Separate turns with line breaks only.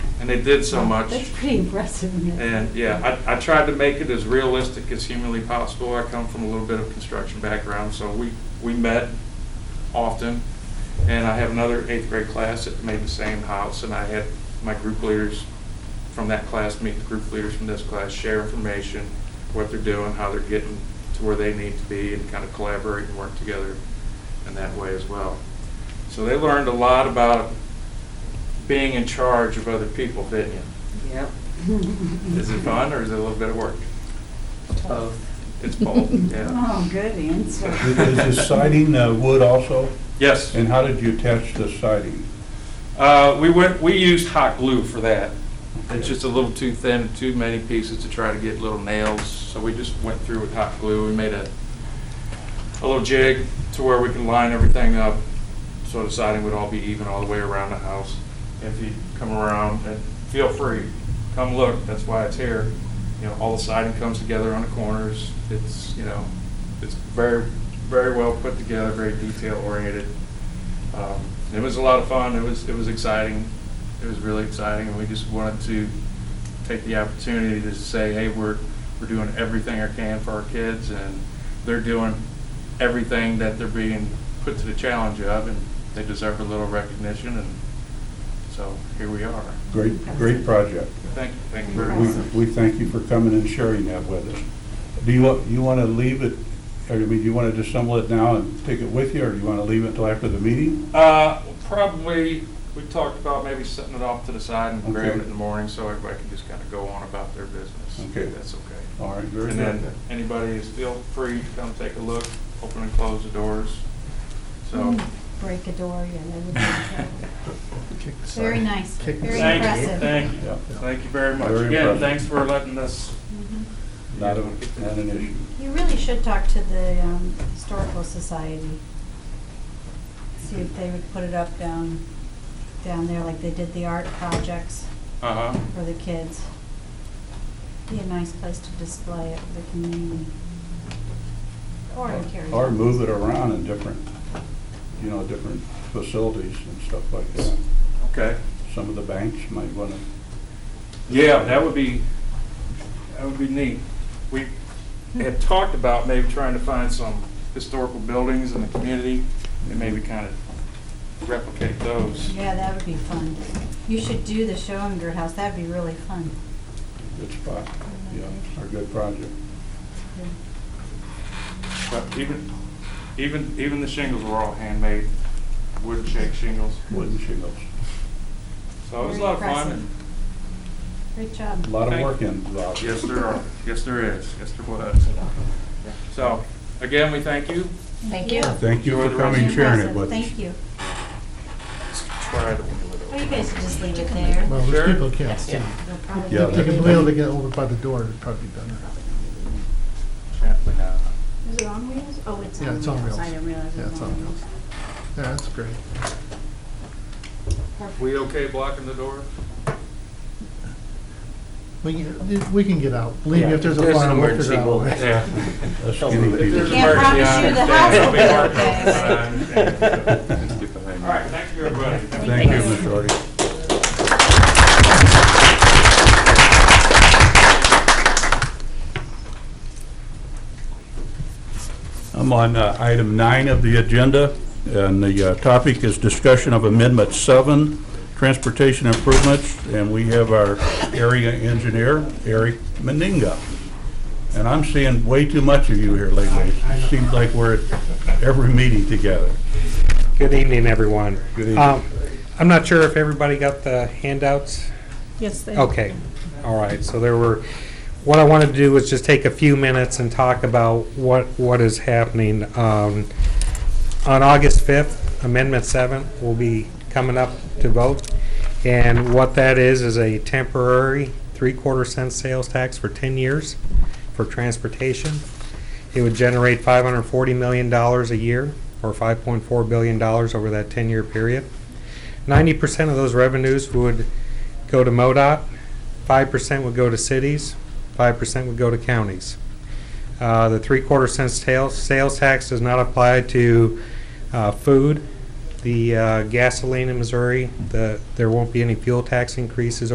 they did so much.
That's pretty impressive. isn't it?
And, yeah, I, I tried to make it as realistic as humanly possible. I come from a little bit of construction background, so we, we met often. And I have another eighth grade class that made the same house, and I had my group leaders from that class meet the group leaders from this class, share information, what they're doing, how they're getting to where they need to be, and kind of collaborate and work together in that way as well. So they learned a lot about being in charge of other people, didn't you?
Yep.
Is it fun or is it a little bit of work? It's both, yeah.
Oh, good answer.
Is the siding uh, wood also?
Yes.
And how did you attach the siding?
Uh, we went, we used hot glue for that. It's just a little too thin, too many pieces to try to get little nails. So we just went through with hot glue. We made a, a little jig to where we can line everything up. So the siding would all be even all the way around the house. If you come around, and feel free, come look. That's why it's here. You know, all the siding comes together on the corners. It's, you know, it's very, very well put together, very detail oriented. Um, It was a lot of fun, it was, it was exciting, it was really exciting, and we just wanted to take the opportunity to say, hey, we're, we're doing everything I can for our kids, and they're doing everything that they're being put to the challenge of, and they deserve a little recognition, and so here we are.
Great, great project.
Thank you, thank you very
We,
much.
we thank you for coming and sharing that with us. Do you, wa- you want to leave it, or I mean, do you want to dissemble it now and take it with you, or do you want to leave it until after the meeting?
Uh, Probably, we talked about maybe setting it off to the side and grabbing
Okay.
it in the morning, so everybody can just kind of go on about their business.
Okay.
That's okay.
All right, very
And then
good.
anybody is feel free to come take a look, open and close the doors. So,
Mm. Break a door, yeah, that would be terrible. Very nice,
Kick the
very
sign.
thank you,
impressive.
thank you,
Yeah,
thank you very much.
Very
Again,
impressive.
thanks for letting us,
Mhm.
not, a- not an issue.
You really should talk to the um, Historical Society. See if they would put it up down, down there like they did the art projects
uh-huh,
for the kids. Be a nice place to display it for the community. Or in Terry's.
Or move it around in different, you know, different facilities and stuff like that.
okay.
Some of the banks might want to,
Yeah, that would be, that would be neat. We had talked about maybe trying to find some historical buildings in the community and maybe kind of replicate those.
Yeah, that would be fun. You should do the show in your house, that'd be really fun.
good spot, yeah, or good project.
But even, even, even the shingles were all handmade, wood shake shingles.
Wooden shingles.
So it was a lot of fun. and-
Great job.
A lot of
Thank-
work involved.
Yes, there are. Yes, there is. Yes, there was. So, again, we thank you.
Thank you.
Thank you for coming and sharing it with us.
Thank you.
Try to win it.
Well, you guys should just leave it there.
Well,
Sure.
there's people who can't see.
They'll probably-
Yeah,
If they
that's-
can be able to get over by the door, it'd probably be better.
Apparently not.
Is it on wheels? Oh, it's on wheels.
Yeah, it's on wheels.
I didn't realize
Yeah,
it was
it's
on
on
wheels.
Yeah, that's great.
We okay blocking the door?
We can, we can get out. Believe me, if there's a
There's an
fire, we'll figure
emergency
out. a way.
bullet.
Yeah.
Us skinny people.
Can't promise you the house will be
okay.
Let's get behind me.
All right, thank you, everybody.
Thank you, Ms. Shorty. I'm on uh, item nine of the agenda, and the uh, topic is discussion of Amendment 7, transportation improvements, and we have our area engineer, Eric Meninga. And I'm seeing way too much of you here lately. It seems like we're at every meeting together.
Good evening, everyone.
Good evening.
Um, I'm not sure if everybody got the handouts.
Yes, they.
Okay, all right, so there were, what I wanted to do was just take a few minutes and talk about what, what is happening. Um, On August 5th, Amendment 7 will be coming up to vote, and what that is, is a temporary three-quarter cent sales tax for 10 years for transportation. It would generate $540 million a year, or $5.4 billion over that 10-year period. 90% of those revenues would go to MoDOT, 5% would go to cities, 5% would go to counties. Uh, The three-quarter cent sales, sales tax does not apply to uh, food, the uh, gasoline in Missouri, the, there won't be any fuel tax increases